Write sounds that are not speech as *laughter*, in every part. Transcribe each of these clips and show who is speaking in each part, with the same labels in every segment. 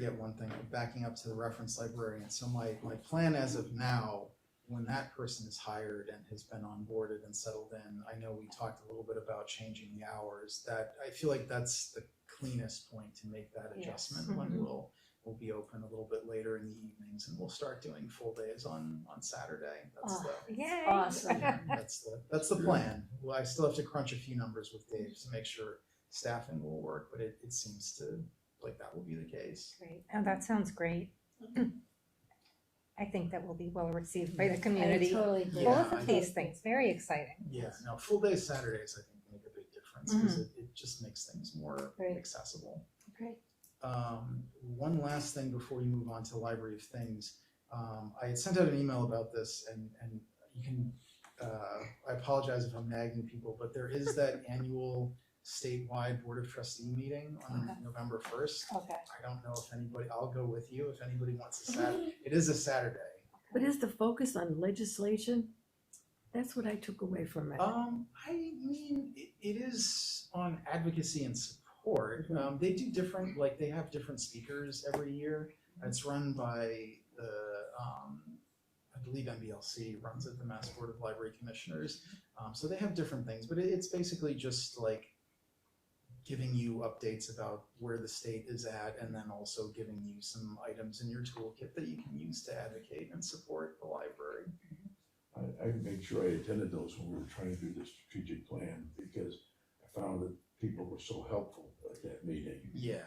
Speaker 1: forget one thing, I'm backing up to the reference librarian. So my, my plan as of now, when that person is hired and has been onboarded and settled in, I know we talked a little bit about changing the hours, that, I feel like that's the cleanest point to make that
Speaker 2: Yes.
Speaker 1: adjustment when we'll, we'll be open a little bit later in the evenings and we'll start doing full days on, on Saturday. That's
Speaker 2: Oh,
Speaker 1: the,
Speaker 3: Yay.
Speaker 2: Awesome.
Speaker 1: that's the, that's the plan. Well, I still have to crunch a few numbers with Dave to make sure staffing will work, but it, it seems to, like that will be the case.
Speaker 2: Great.
Speaker 3: Oh, that sounds great. *clears throat* I think that will be well received by the community.
Speaker 2: I totally agree.
Speaker 1: Yeah,
Speaker 3: Both of these things, very exciting.
Speaker 1: Yeah, no, full day Saturdays, I think, make a big difference because it, it just makes things more
Speaker 2: Mm-hmm. Right.
Speaker 1: accessible.
Speaker 2: Great.
Speaker 1: Um, one last thing before we move on to Library of Things. Um, I had sent out an email about this and, and you can, uh, I apologize if I'm nagging people, but there is
Speaker 2: *laughs*
Speaker 1: that annual statewide Board of Trustee meeting on
Speaker 2: Okay.
Speaker 1: November first.
Speaker 2: Okay.
Speaker 1: I don't know if anybody, I'll go with you if anybody wants a
Speaker 2: *laughs*
Speaker 1: Saturday. It is a Saturday.
Speaker 4: But is the focus on legislation? That's what I took away from
Speaker 3: Oh.
Speaker 4: it.
Speaker 1: Um, I mean, it, it is on advocacy and support. Um, they do different, like they have different speakers every year. It's run by the, um, I believe MBLC runs it, the Mass Board of Library Commissioners. Um, so they have different things, but it, it's basically just like giving you updates about where the state is at and then also giving you some items in your toolkit that you can use to advocate and support the library.
Speaker 5: I, I made sure I attended those when we were trying to do the strategic plan, because I found that people were so helpful at that meeting.
Speaker 1: Yeah.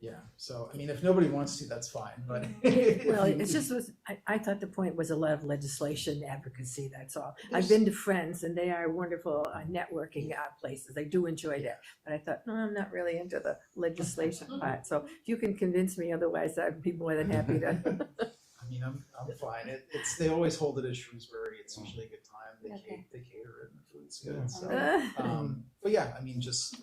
Speaker 1: Yeah, so, I mean, if nobody wants to, that's fine, *laughs* but.
Speaker 4: Well, it's just was, I, I thought the point was a lot of legislation advocacy, that's all. I've been to Friends and they are wonderful uh, networking uh, places. I do enjoy that. But I thought, no, I'm not really into the legislation *laughs* part. So if you can convince me otherwise, I'd be more than happy *laughs* to.
Speaker 1: I mean, I'm, I'm fine, it, it's, they always hold it at Shrewsbury, it's usually a good time, they cater,
Speaker 2: Okay.
Speaker 1: they cater it, and the food's
Speaker 5: Yeah.
Speaker 1: good, so. Um, but yeah, I mean, just,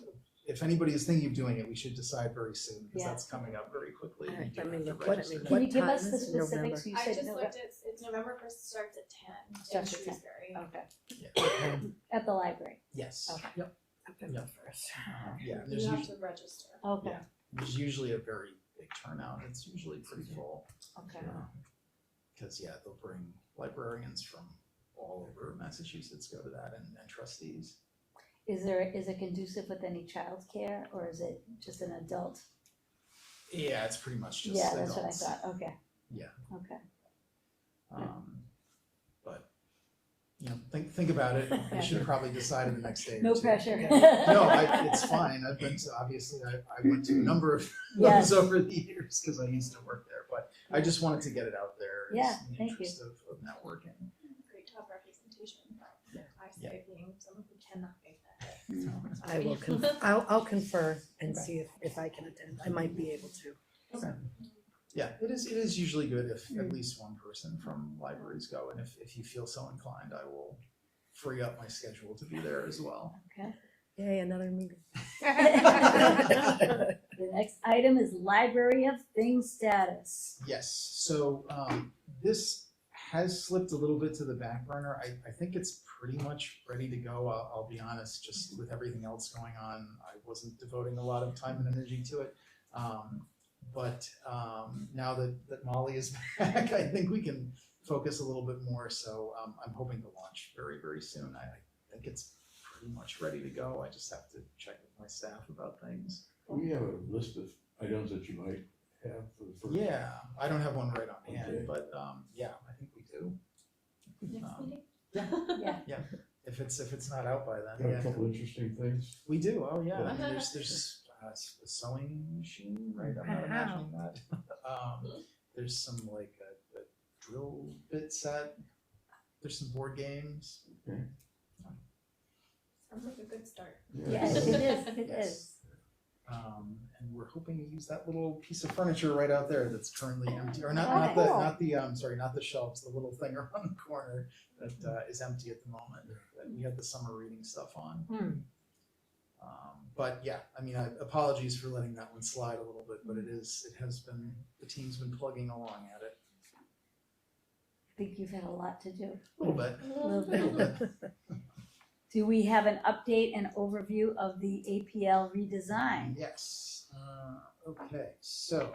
Speaker 1: if anybody is thinking of doing it, we should decide very soon, because
Speaker 2: Yeah.
Speaker 1: that's coming up very quickly.
Speaker 4: All right,
Speaker 1: You do
Speaker 4: let me
Speaker 1: have to
Speaker 4: look. What-
Speaker 1: register.
Speaker 4: what
Speaker 2: Can you give
Speaker 4: time
Speaker 2: us the
Speaker 4: is it? November?
Speaker 2: specifics? You
Speaker 6: I
Speaker 2: said
Speaker 6: just
Speaker 2: November.
Speaker 6: looked, it's, it's November first starts at ten in
Speaker 2: Starts at Oh. 10.
Speaker 6: Shrewsbury.
Speaker 2: Okay.
Speaker 1: Yeah.
Speaker 2: At the library.
Speaker 1: Yes,
Speaker 2: Okay.
Speaker 1: yep,
Speaker 4: November first.
Speaker 1: yeah, there's
Speaker 6: You have
Speaker 1: usually,
Speaker 6: to register.
Speaker 2: Okay.
Speaker 1: Yeah. there's usually a very big turnout, it's usually pretty full.
Speaker 3: *laughs*
Speaker 2: Okay.
Speaker 1: Because, yeah, they'll bring librarians from all over Massachusetts go to that and, and trustees.
Speaker 2: Is there, is it conducive with any childcare or is it just an adult?
Speaker 1: Yeah, it's pretty much just
Speaker 2: Yeah, that's what I
Speaker 1: adults.
Speaker 2: thought. Okay.
Speaker 1: Yeah.
Speaker 2: Okay.
Speaker 1: Um, but, you know, think, think about
Speaker 2: *laughs*
Speaker 1: it. You should probably decide in the next day or
Speaker 2: No
Speaker 1: two.
Speaker 2: pressure.
Speaker 1: No,
Speaker 2: *laughs*
Speaker 1: I, it's fine. I've been to, obviously, I, I went to a number of
Speaker 2: Yes.
Speaker 1: those over the years because I used to work there, but I just wanted to get it out there. It's
Speaker 2: Yeah,
Speaker 1: in the
Speaker 2: thank you.
Speaker 1: interest of, of networking.
Speaker 6: Great to have representation, but
Speaker 1: Yeah.
Speaker 6: I say being someone who cannot make that day. so
Speaker 4: I will, con- I'll, I'll confer and see if, if I can attend. I might be able to.
Speaker 1: Yeah, it is, it is usually good if at least one person from libraries go, and if, if you feel so inclined, I will free up my schedule to be there as well.
Speaker 4: Yay, another meeting.
Speaker 2: The next item is library of things status.
Speaker 1: Yes, so, um, this has slipped a little bit to the back burner, I, I think it's pretty much ready to go, I'll, I'll be honest, just with everything else going on, I wasn't devoting a lot of time and energy to it. Um, but, um, now that, that Molly is *laughs* back, I think we can focus a little bit more, so, um, I'm hoping to launch very, very soon, I, I think it's pretty much ready to go, I just have to check with my staff about things.
Speaker 5: We have a list of items that you might have for the first.
Speaker 1: Yeah, I don't have one right on hand,
Speaker 5: Okay.
Speaker 1: but, um, yeah, I think we do.
Speaker 6: Next
Speaker 1: Um,
Speaker 6: meeting?
Speaker 2: Yeah.
Speaker 1: If it's, if it's not out by then,
Speaker 5: Got a
Speaker 1: yeah.
Speaker 5: couple interesting things.
Speaker 1: We do, oh, yeah, I mean,
Speaker 2: *laughs*
Speaker 6: Yeah.
Speaker 1: there's, there's uh, s- a sewing machine, right, I'm not
Speaker 4: Wow.
Speaker 1: imagining that. *laughs* Um, there's some like a, a drill bit set, there's some board games.
Speaker 6: Sounds like a good start.
Speaker 2: Yes, it is, it
Speaker 1: Yes.
Speaker 2: is.
Speaker 1: Um, and we're hoping to use that little piece of furniture right out there that's currently empty, or not,
Speaker 2: Oh,
Speaker 1: not the,
Speaker 2: cool.
Speaker 1: not the, um, sorry, not the shelves, the little thing *laughs* around the corner that, uh, is empty at the moment, that we had the summer reading stuff on.
Speaker 4: Hmm.
Speaker 1: Um, but yeah, I mean, I, apologies for letting that one slide a little bit, but it is, it has been, the team's been plugging along at it
Speaker 2: I think you've had a lot to do.
Speaker 1: a little bit,
Speaker 2: Little
Speaker 1: a little bit.
Speaker 2: Do we have an update and overview of the APL redesign?
Speaker 1: Yes, uh, Okay, so